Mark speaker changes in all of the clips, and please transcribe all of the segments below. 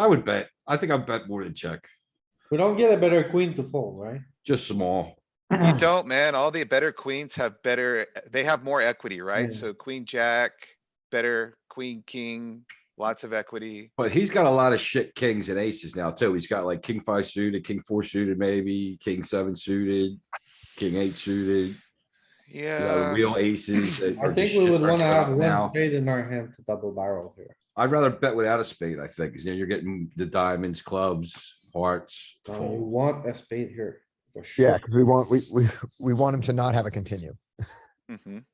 Speaker 1: I would bet. I think I'd bet more than check,
Speaker 2: We don't get a better queen to fold, right?
Speaker 1: just small.
Speaker 3: You don't, man. All the better queens have better, they have more equity, right?
Speaker 2: Yeah.
Speaker 3: So queen, jack, better queen, king, lots of equity.
Speaker 1: But he's got a lot of shit kings and aces now too. He's got like king five suited, king four suited, maybe king seven suited, king eight suited, you know,
Speaker 3: Yeah,
Speaker 1: real aces. that
Speaker 2: I
Speaker 1: are
Speaker 2: think
Speaker 1: just
Speaker 2: we
Speaker 1: shit
Speaker 2: would wanna
Speaker 1: right
Speaker 2: have
Speaker 1: about
Speaker 2: one
Speaker 1: now.
Speaker 2: spade in our hand to double barrel here.
Speaker 1: I'd rather bet without a spade, I think, because then you're getting the diamonds, clubs, hearts. to
Speaker 2: So you
Speaker 1: fold.
Speaker 2: want a spade here, for sure.
Speaker 4: Yeah, because we want, we, we, we want him to not have a continue.
Speaker 3: mhm.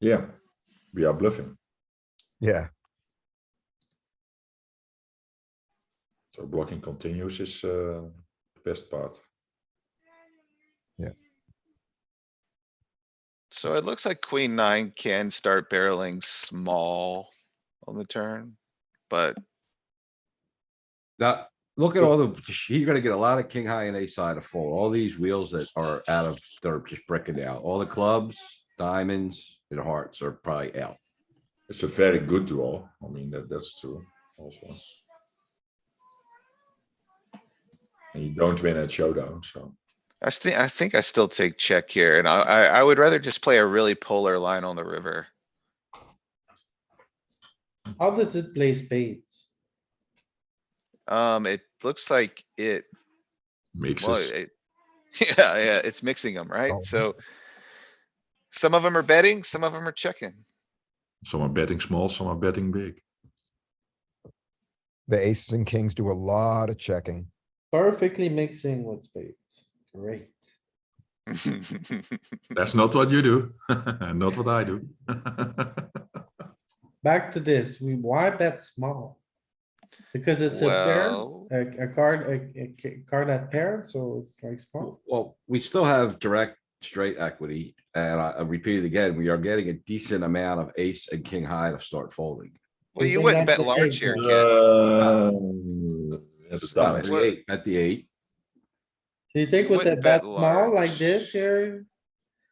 Speaker 5: Yeah, we are bluffing.
Speaker 4: Yeah,
Speaker 5: So blocking continues is uh, the best part.
Speaker 3: So it looks like queen nine can start barreling small on the turn, but
Speaker 1: That, look at all the, he's gonna get a lot of king high and ace high to fold. All these wheels that are out of, they're just breaking out. All the clubs, diamonds and hearts are probably out.
Speaker 5: It's a very good draw. I mean, that, that's true also. And you don't win at showdown, so
Speaker 3: I think, I think I still take check here and I, I, I would rather just play a really polar line on the river.
Speaker 2: How does it play spades?
Speaker 3: Um, it looks like it Well,
Speaker 5: mixes.
Speaker 3: it- Yeah, yeah, it's mixing them, right?
Speaker 4: Oh.
Speaker 3: So. Some of them are betting, some of them are checking.
Speaker 5: Some are betting small, some are betting big.
Speaker 4: the aces and kings do a lot of checking.
Speaker 2: Perfectly mixing with spades. Great.
Speaker 5: That's not what you do. not what I do.
Speaker 2: Back to this, we, why bet small? Because it's a
Speaker 3: Well-
Speaker 2: pair, a, a card, a- a, ca- card that paired, so it's like small.
Speaker 1: Well, we still have direct straight equity, and I I repeat it again, we are getting a decent amount of ace and king high to start folding.
Speaker 3: Well, you
Speaker 2: think
Speaker 3: wouldn't
Speaker 2: that's
Speaker 3: bet
Speaker 2: the big
Speaker 3: large here,
Speaker 2: one.
Speaker 3: Ken.
Speaker 1: Uh,
Speaker 5: Um, yeah, the
Speaker 1: Not At
Speaker 5: diamonds.
Speaker 1: the eight, at the eight,
Speaker 2: Do you think with a
Speaker 3: Wouldn't bet
Speaker 2: bet small like
Speaker 3: large.
Speaker 2: this here,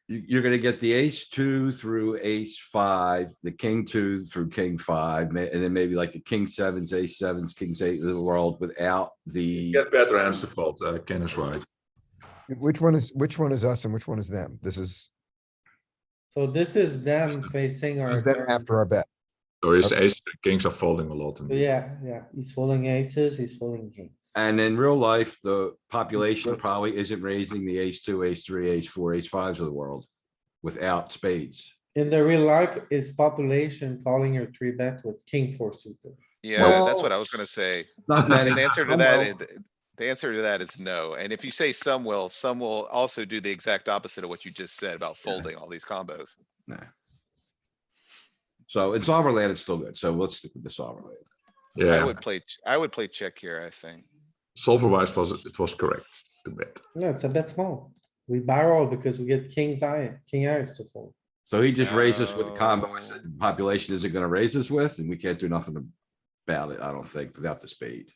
Speaker 1: you, you're gonna get the ace two through ace five, the king two through king five, ma- and then maybe like the king sevens, ace sevens, kings eight of the world without the.
Speaker 5: Get better hands to fold. Uh, Ken is right.
Speaker 4: Which one is, which one is us and which one is them? This is,
Speaker 2: so this is them facing our.
Speaker 4: is them
Speaker 2: turn.
Speaker 4: after our bet.
Speaker 5: So his ace kings are folding a lot.
Speaker 2: So Yeah, yeah, he's folding aces, he's folding kings.
Speaker 1: And in real life, the population probably isn't raising the ace two, ace three, ace four, ace fives of the world without spades.
Speaker 2: In the real life, it's population calling your three bet with king four suited.
Speaker 3: Yeah, that's
Speaker 1: Well-
Speaker 3: what I was gonna say.
Speaker 1: Not many.
Speaker 3: The answer to
Speaker 1: I
Speaker 3: that,
Speaker 1: know.
Speaker 3: is- the answer to that is no. And if you say some will, some will also do the exact opposite of what you just said about
Speaker 1: Yeah.
Speaker 3: folding all these combos.
Speaker 1: Nah. So in solver land, it's still good. So let's stick with the solver land.
Speaker 3: I
Speaker 5: Yeah,
Speaker 3: would play, ch- I would play check here, I think.
Speaker 5: solver wise was it was correct to bet.
Speaker 2: No, it's a bet small. We barrel because we get king's eye, king eyes to fold.
Speaker 1: So he just raised us with the combo. I
Speaker 3: No.
Speaker 1: said, the population isn't gonna raise us with, and we can't do nothing about it, I don't think, without the spade.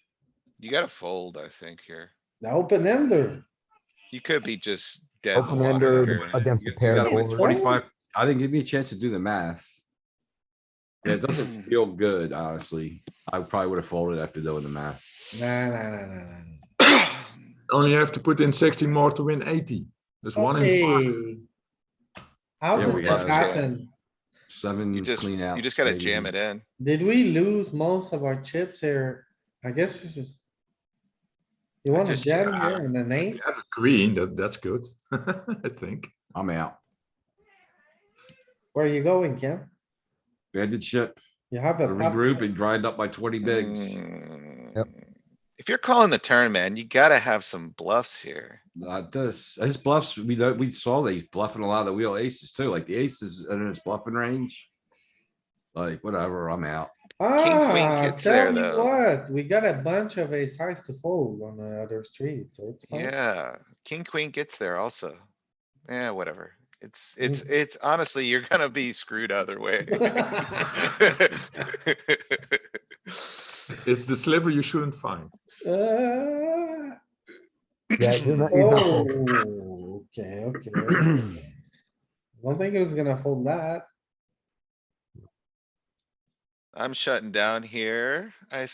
Speaker 3: You gotta fold, I think, here.
Speaker 2: The open ender,
Speaker 3: You could be just dead. in the
Speaker 4: Open
Speaker 3: water
Speaker 4: ender
Speaker 3: here.
Speaker 4: against the
Speaker 3: You- you
Speaker 4: paired
Speaker 3: gotta win
Speaker 4: board.
Speaker 1: Twenty-five, I didn't give me a chance to do the math. Yeah, It doesn't feel good, honestly. I probably would have folded after doing the math.
Speaker 2: nah, nah, nah, nah, nah.
Speaker 5: Only have to put in 16 more to win 80. There's one in five.
Speaker 2: Okay. How
Speaker 1: Yeah, we
Speaker 2: did this
Speaker 1: gotta-
Speaker 2: happen?
Speaker 1: Seven
Speaker 3: You just,
Speaker 1: clean out.
Speaker 3: you just gotta jam it in.
Speaker 2: Did we lose most of our chips here? I guess we just. You
Speaker 3: I
Speaker 2: wanna
Speaker 3: just-
Speaker 2: jam
Speaker 5: yeah.
Speaker 2: here and an
Speaker 5: You
Speaker 2: ace?
Speaker 5: have a Green, that, that's good, I think.
Speaker 1: I'm out.
Speaker 2: Where are you going, Ken?
Speaker 1: Banded ship,
Speaker 2: You have a. pot-
Speaker 1: regroup and grind up by twenty bigs.
Speaker 4: Yep.
Speaker 3: Mm. If you're calling the turn, man, you gotta have some bluffs here.
Speaker 1: Not this, his bluffs, we know, we saw that he's bluffing a lot of the wheel aces too, like the aces in his bluffing range. Like, whatever, I'm out.
Speaker 2: Ah,
Speaker 3: gets
Speaker 2: tell
Speaker 3: there,
Speaker 2: me
Speaker 3: though.
Speaker 2: what, we got a bunch of a size to fold on the other street, so it's fine.
Speaker 3: Yeah, king, queen gets there also. Yeah, whatever. It's,
Speaker 2: Mm.
Speaker 3: it's, it's honestly, you're gonna be screwed either way.
Speaker 5: It's the sliver you shouldn't find.
Speaker 2: Uh,
Speaker 4: Yeah, you're not, you're not
Speaker 2: Oh,
Speaker 4: folding.
Speaker 2: okay, okay. Don't think it was gonna fold that.
Speaker 3: I'm shutting down here. I